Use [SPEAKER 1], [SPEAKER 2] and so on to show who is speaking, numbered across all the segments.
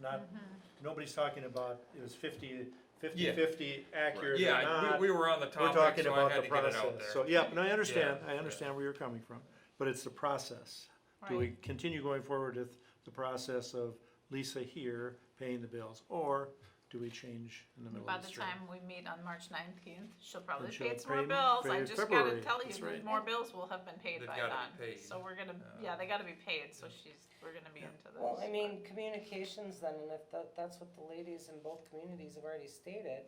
[SPEAKER 1] not,
[SPEAKER 2] Mm-hmm.
[SPEAKER 1] nobody's talking about, it was fifty,
[SPEAKER 3] Yeah.
[SPEAKER 1] fifty-fifty accurate or
[SPEAKER 3] Yeah,
[SPEAKER 1] not.
[SPEAKER 3] we, we were on the
[SPEAKER 1] We're
[SPEAKER 3] topic,
[SPEAKER 1] talking
[SPEAKER 3] so I
[SPEAKER 1] about
[SPEAKER 3] had
[SPEAKER 1] the
[SPEAKER 3] to get it
[SPEAKER 1] process.
[SPEAKER 3] out there.
[SPEAKER 1] So, yeah, no, I understand,
[SPEAKER 3] Yeah,
[SPEAKER 1] I
[SPEAKER 3] yeah.
[SPEAKER 1] understand where you're coming from, but it's the process. Do we
[SPEAKER 2] Right.
[SPEAKER 1] continue going forward with the process of Lisa here paying the bills, or do we change in the middle
[SPEAKER 2] By
[SPEAKER 1] of the
[SPEAKER 2] the
[SPEAKER 1] stream?
[SPEAKER 2] time we meet on March nineteenth, she'll probably
[SPEAKER 1] she'll
[SPEAKER 2] pay some more
[SPEAKER 1] pay-
[SPEAKER 2] bills,
[SPEAKER 1] pay
[SPEAKER 2] I
[SPEAKER 1] in
[SPEAKER 2] just gotta
[SPEAKER 1] February.
[SPEAKER 2] tell
[SPEAKER 1] That's
[SPEAKER 2] you,
[SPEAKER 1] right.
[SPEAKER 2] more bills will have been paid
[SPEAKER 3] They've
[SPEAKER 2] by
[SPEAKER 3] gotta be
[SPEAKER 2] then,
[SPEAKER 3] paid.
[SPEAKER 2] so we're gonna,
[SPEAKER 3] Uh,
[SPEAKER 2] yeah, they gotta be paid, so she's, we're gonna be into this.
[SPEAKER 4] Well, I mean, communications then, and if that, that's what the ladies in both communities have already stated,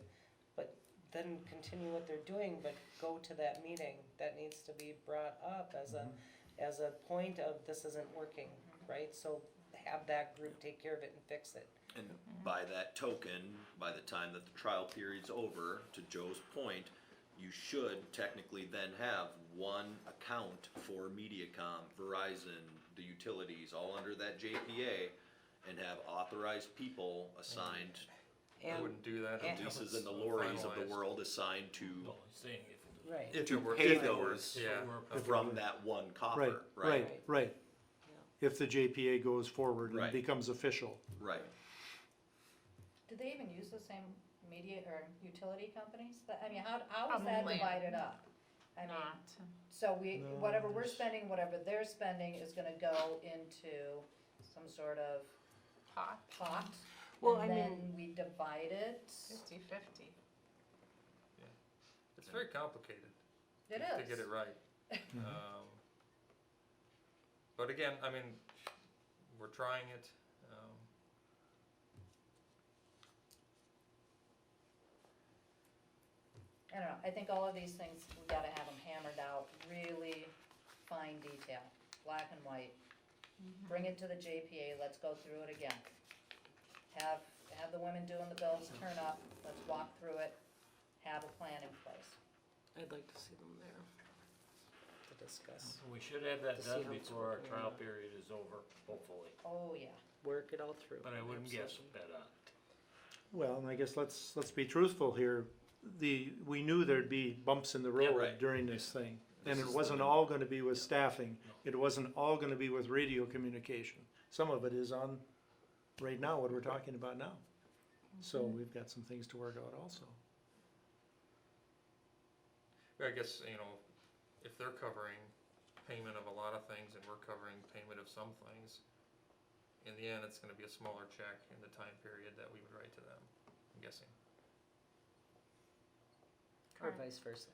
[SPEAKER 4] but then continue what they're doing, but go to that meeting, that needs to be brought up as a, as a point of this isn't working, right? So have that group take care of it and fix it.
[SPEAKER 5] And by that token, by the time that the trial period's over, to Joe's point, you should technically then have one account for MediaCom, Verizon, the utilities, all under that JPA, and have authorized people assigned,
[SPEAKER 3] I
[SPEAKER 4] And,
[SPEAKER 3] wouldn't do that
[SPEAKER 4] and-
[SPEAKER 3] until
[SPEAKER 5] Lisa's
[SPEAKER 3] it's
[SPEAKER 5] and the lorries of
[SPEAKER 3] finalized.
[SPEAKER 5] the world assigned to,
[SPEAKER 6] Well, he's saying if it was-
[SPEAKER 4] right,
[SPEAKER 5] if you
[SPEAKER 3] If it were-
[SPEAKER 5] pay
[SPEAKER 3] if it were-
[SPEAKER 5] those
[SPEAKER 3] Yeah.
[SPEAKER 6] We're-
[SPEAKER 5] from that one
[SPEAKER 1] Right,
[SPEAKER 5] coffer,
[SPEAKER 1] right,
[SPEAKER 5] right?
[SPEAKER 1] right. If the JPA goes forward and
[SPEAKER 5] Right.
[SPEAKER 1] becomes official.
[SPEAKER 5] Right.
[SPEAKER 7] Do they even use the same media or utility companies? But, I mean, how, how
[SPEAKER 4] Um,
[SPEAKER 7] is that
[SPEAKER 2] Probably
[SPEAKER 7] divided up? I mean,
[SPEAKER 2] Not,
[SPEAKER 7] so we,
[SPEAKER 1] No,
[SPEAKER 7] whatever we're
[SPEAKER 1] there's-
[SPEAKER 7] spending, whatever they're spending is gonna go into some sort of
[SPEAKER 2] pot,
[SPEAKER 7] pot.
[SPEAKER 4] Well, I
[SPEAKER 7] And then we divide it.
[SPEAKER 2] fifty fifty.
[SPEAKER 3] It's very complicated.
[SPEAKER 7] It
[SPEAKER 3] to-
[SPEAKER 7] is.
[SPEAKER 3] To get it right. Um, But again, I mean, we're trying it. um,
[SPEAKER 7] I don't know, I think all of these things, we gotta have them hammered out, really fine detail, black and white. Bring it to the JPA, let's go through it again. Have, have the women doing the bills turn up, let's walk through it, have a plan in place.
[SPEAKER 4] I'd like to see them there to discuss,
[SPEAKER 6] We should have that
[SPEAKER 4] To see
[SPEAKER 6] done
[SPEAKER 4] how it's
[SPEAKER 6] before our
[SPEAKER 4] working
[SPEAKER 6] trial
[SPEAKER 4] out.
[SPEAKER 6] period is over, hopefully,
[SPEAKER 7] Oh, yeah.
[SPEAKER 4] work it all through.
[SPEAKER 6] but I wouldn't guess
[SPEAKER 4] Absolutely.
[SPEAKER 6] that on.
[SPEAKER 1] Well, and I guess let's, let's be truthful here. The, we knew there'd be bumps in the
[SPEAKER 5] Yeah,
[SPEAKER 1] road
[SPEAKER 5] right.
[SPEAKER 1] during this thing. And
[SPEAKER 5] This
[SPEAKER 1] it
[SPEAKER 5] is the
[SPEAKER 1] wasn't
[SPEAKER 5] new-
[SPEAKER 1] all gonna be with staffing. It wasn't all gonna be with radio communication. Some of it is on, right now, what we're talking about now. So we've got some things to work out also.
[SPEAKER 3] I guess, you know, if they're covering payment of a lot of things and we're covering payment of some things, in the end, it's gonna be a smaller check in the time period that we would write to them, I'm guessing.
[SPEAKER 4] Or vice versa.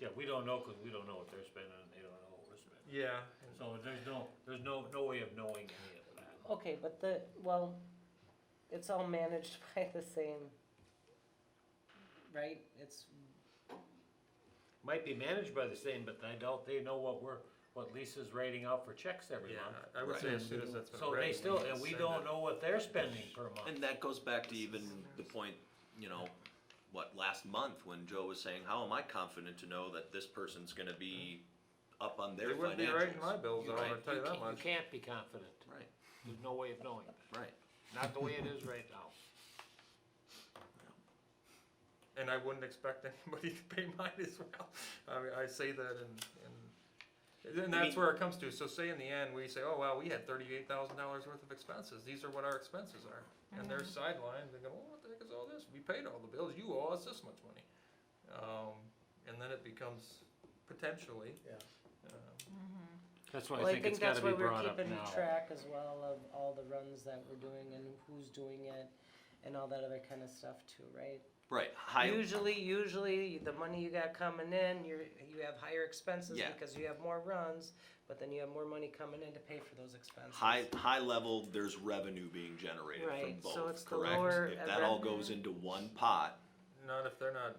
[SPEAKER 6] Yeah, we don't know, cause we don't know what they're spending, and they don't know what we're spending,
[SPEAKER 3] Yeah.
[SPEAKER 6] so there's no, there's no, no way of knowing any of that.
[SPEAKER 4] Okay, but the, well, it's all managed by the same, right? It's,
[SPEAKER 6] Might be managed by the same, but I doubt they know what we're, what Lisa's writing out for checks every
[SPEAKER 3] Yeah,
[SPEAKER 6] month.
[SPEAKER 3] I would say as soon as that's been
[SPEAKER 6] So
[SPEAKER 3] read,
[SPEAKER 6] they
[SPEAKER 3] we
[SPEAKER 6] still,
[SPEAKER 3] can
[SPEAKER 6] and we
[SPEAKER 3] send
[SPEAKER 6] don't
[SPEAKER 3] it.
[SPEAKER 6] know what they're spending per month.
[SPEAKER 5] And that goes back to even the point, you know, what, last month when Joe was saying, how am I confident to know that this person's gonna be up on their
[SPEAKER 3] They wouldn't be writing my
[SPEAKER 5] financials?
[SPEAKER 3] bills, I'll
[SPEAKER 5] Right.
[SPEAKER 3] tell you that
[SPEAKER 6] can't-
[SPEAKER 3] much.
[SPEAKER 6] can't be confident,
[SPEAKER 5] Right,
[SPEAKER 6] there's no way of knowing that,
[SPEAKER 5] right.
[SPEAKER 6] not the way it is right now.
[SPEAKER 3] and I wouldn't expect anybody to pay mine as well. I mean, I say that and, and, and
[SPEAKER 5] I
[SPEAKER 3] that's
[SPEAKER 5] mean-
[SPEAKER 3] where it comes to. So say in the end, we say, oh, wow, we had thirty-eight thousand dollars worth of expenses. These are what our expenses are. And they're sidelined, they go, oh, what the heck is all this? We paid all the bills, you owe us this much money. Um, and then it becomes potentially,
[SPEAKER 1] Yeah.
[SPEAKER 3] um,
[SPEAKER 6] That's
[SPEAKER 4] well, I think that's why we're keeping track as well of all the runs that we're doing and who's doing it and all that other kind of stuff too, right?
[SPEAKER 5] Right, high,
[SPEAKER 4] Usually, usually, the money you got coming in, you're, you have higher expenses
[SPEAKER 5] Yeah.
[SPEAKER 4] because you have more runs, but then you have more money coming in to pay for those expenses.
[SPEAKER 5] high, high level, there's revenue being generated
[SPEAKER 4] Right,
[SPEAKER 5] from
[SPEAKER 4] so it's
[SPEAKER 5] both,
[SPEAKER 4] the lower
[SPEAKER 5] correct? If that all
[SPEAKER 4] revenue.
[SPEAKER 5] goes into one pot,
[SPEAKER 3] Not if they're not,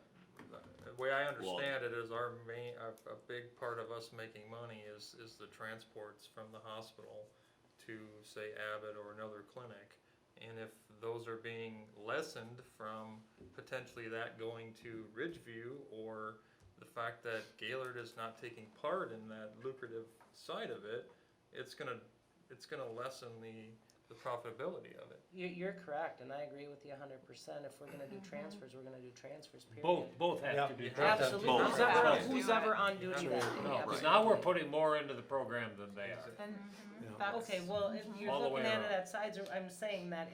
[SPEAKER 3] the way I
[SPEAKER 5] Well-
[SPEAKER 3] understand it is our main, a, a big part of us making money is, is the transports from the hospital to say Abbott or another clinic. And if those are being lessened from potentially that going to Ridgeview or the fact that Gaylord is not taking part in that lucrative side of it, it's gonna, it's gonna lessen the, the profitability of it.
[SPEAKER 4] You, you're correct, and I agree with you hundred percent. If we're gonna do transfers, we're gonna do transfers, period.
[SPEAKER 6] Both, both
[SPEAKER 1] Yeah.
[SPEAKER 6] have to be.
[SPEAKER 3] You have
[SPEAKER 6] tracked.
[SPEAKER 4] Absolutely,
[SPEAKER 5] Both.
[SPEAKER 4] who's ever,
[SPEAKER 2] Both.
[SPEAKER 4] who's ever on
[SPEAKER 3] That's
[SPEAKER 4] duty
[SPEAKER 3] right.
[SPEAKER 4] that
[SPEAKER 6] No,
[SPEAKER 4] day,
[SPEAKER 6] 'cause now we're
[SPEAKER 4] absolutely.
[SPEAKER 6] putting more into the program than they are.
[SPEAKER 2] Then
[SPEAKER 1] Yeah.
[SPEAKER 2] that's.
[SPEAKER 4] Okay, well, if you're
[SPEAKER 6] All the
[SPEAKER 4] looking
[SPEAKER 6] way
[SPEAKER 4] at it
[SPEAKER 6] around.
[SPEAKER 4] at sides, I'm saying that